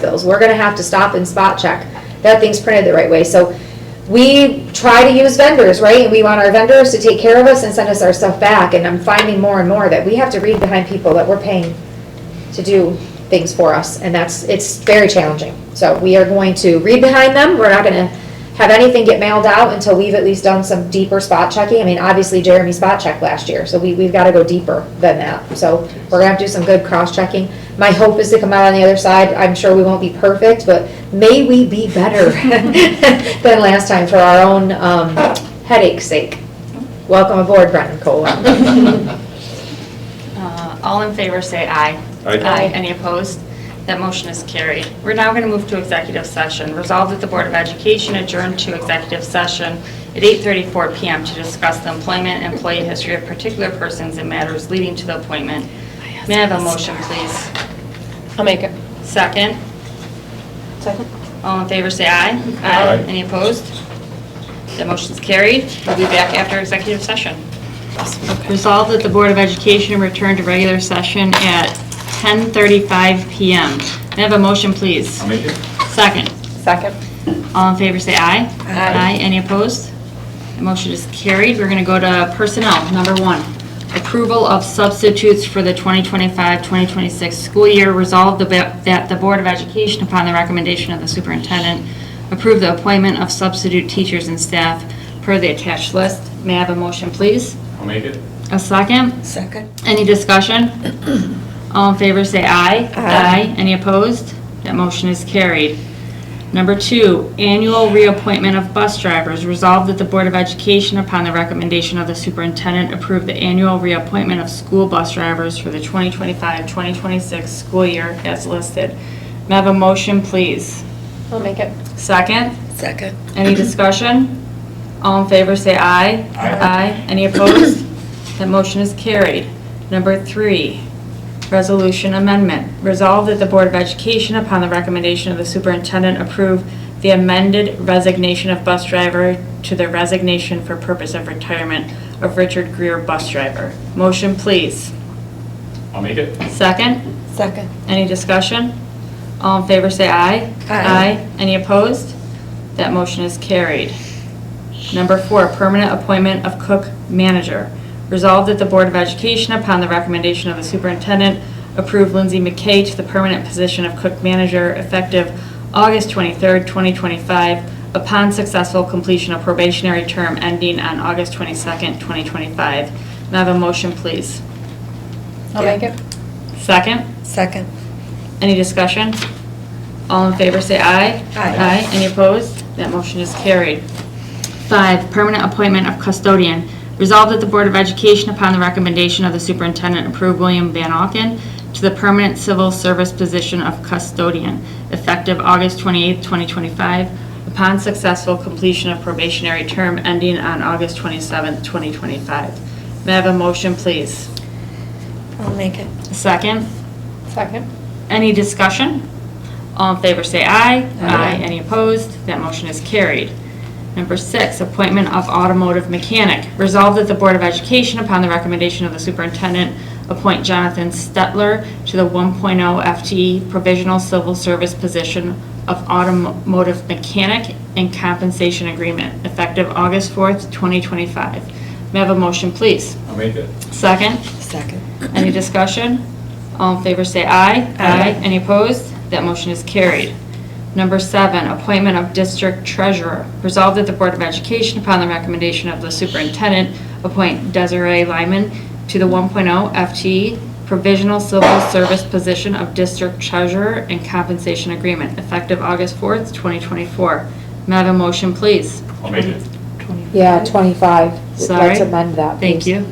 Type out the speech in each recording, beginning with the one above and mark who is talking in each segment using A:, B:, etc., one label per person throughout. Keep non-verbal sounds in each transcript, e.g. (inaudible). A: bills. We're gonna have to stop and spot check that thing's printed the right way. So we try to use vendors, right? And we want our vendors to take care of us and send us our stuff back. And I'm finding more and more that we have to read behind people that we're paying to do things for us. And that's, it's very challenging. So we are going to read behind them. We're not gonna have anything get mailed out until we've at least done some deeper spot checking. I mean, obviously Jeremy spot checked last year, so we, we've gotta go deeper than that. So we're gonna have to do some good cross-checking. My hope is to come out on the other side. I'm sure we won't be perfect, but may we be better (laughs) than last time for our own, um, headache's sake. Welcome aboard, Brendan Cola.
B: (laughs)
C: Uh, All in favor, say aye.
D: Aye.
C: Any opposed? That motion is carried. We're now going to move to executive session. Resolved that the Board of Education adjourn to executive session at 8:34 PM to discuss the employment, and employee history of particular persons and matters leading to the appointment. May I have a motion, please?
B: (laughs) I'll make it.
C: Second?
B: Second.
C: All in favor, say aye.
D: Aye.
C: Any opposed? That motion's carried. We'll be back after executive session. Resolved that the Board of Education return to regular session at 10:35 PM. May I have a motion, please?
D: I'll make it.
C: Second.
B: Second.
C: All in favor, say aye. Aye. Any opposed? The motion is carried. We're going to go to personnel. Number one, approval of substitutes for the 2025-2026 school year. Resolved about- that the Board of Education, upon the recommendation of the superintendent, approve the appointment of substitute teachers and staff per the attached list. May I have a motion, please?
D: I'll make it.
C: A second?
B: Second.
C: Any discussion? All in favor, say aye. Aye. Any opposed? That motion is carried. Number two, annual reappointment of bus drivers. Resolved that the Board of Education, upon the recommendation of the superintendent, approve the annual reappointment of school bus drivers for the 2025-2026 school year as listed. May I have a motion, please?
B: I'll make it.
C: Second?
B: Second.
C: Any discussion? All in favor, say aye.
D: Aye.
C: Any opposed? That motion is carried. Number three, resolution amendment. Resolved that the Board of Education, upon the recommendation of the superintendent, approve the amended resignation of bus driver to the resignation for purpose of retirement of Richard Greer, bus driver. Motion, please.
D: I'll make it.
C: Second?
B: Second.
C: Any discussion? All in favor, say aye.
B: Aye.
C: Any opposed? That motion is carried. Number four, permanent appointment of cook manager. Resolved that the Board of Education, upon the recommendation of the superintendent, approve Lindsay McKay to the permanent position of cook manager effective August 23rd, 2025, upon successful completion of probationary term ending on August 22nd, 2025. May I have a motion, please?
B: I'll make it.
C: Second?
B: Second.
C: Any discussion? All in favor, say aye.
D: Aye.
C: Any opposed? That motion is carried. Five, permanent appointment of custodian. Resolved that the Board of Education, upon the recommendation of the superintendent, approve William Van Alken to the permanent civil service position of custodian, effective August 28, 2025, upon successful completion of probationary term ending on August 27, 2025. May I have a motion, please?
B: I'll make it.
C: Second?
B: Second.
C: Any discussion? All in favor say aye.
D: Aye.
C: Any opposed? That motion is carried. Number six, appointment of automotive mechanic. Resolved that the Board of Education, upon the recommendation of the superintendent, appoint Jonathan Stetler to the 1.0 FTE E provisional civil service position of automotive mechanic and compensation agreement, effective August 4th, 2025. May I have a motion, please?
D: I'll make it.
C: Second?
B: Second.
C: Any discussion? All in favor say aye. Aye. Any opposed? That motion is carried. Number seven, appointment of district treasurer. Resolved that the Board of Education, upon the recommendation of the superintendent, appoint Desiree Lyman to the 1.0 FTE provisional civil service position of district treasurer and compensation agreement, effective August 4th, 2024. May I have a motion, please?
D: I'll make it.
A: Yeah, twenty-five.
C: Sorry.
A: Let's amend that.
C: Thank
A: please.
C: you.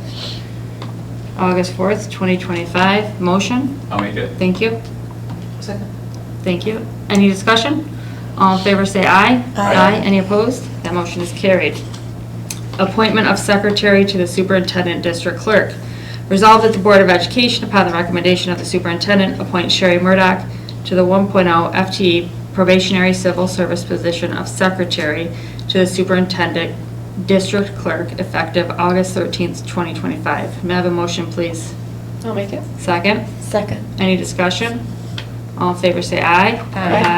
C: August 4th, 2025. Motion?
D: I'll make it.
C: Thank you.
B: Second.
C: Thank you. Any discussion? All in favor, say aye.
B: Aye.
C: Any opposed? That motion is carried. Appointment of secretary to the superintendent district clerk. Resolved that the Board of Education, upon the recommendation of the superintendent, appoint Sherry Murdock to the 1.0 FTE E probationary civil service position of secretary to the superintendent district clerk effective August 13th, 2025. May I have a motion, please?
B: I'll make it.
C: Second?
B: Second.
C: Any discussion?
E: All in favor, say aye.
C: Aye.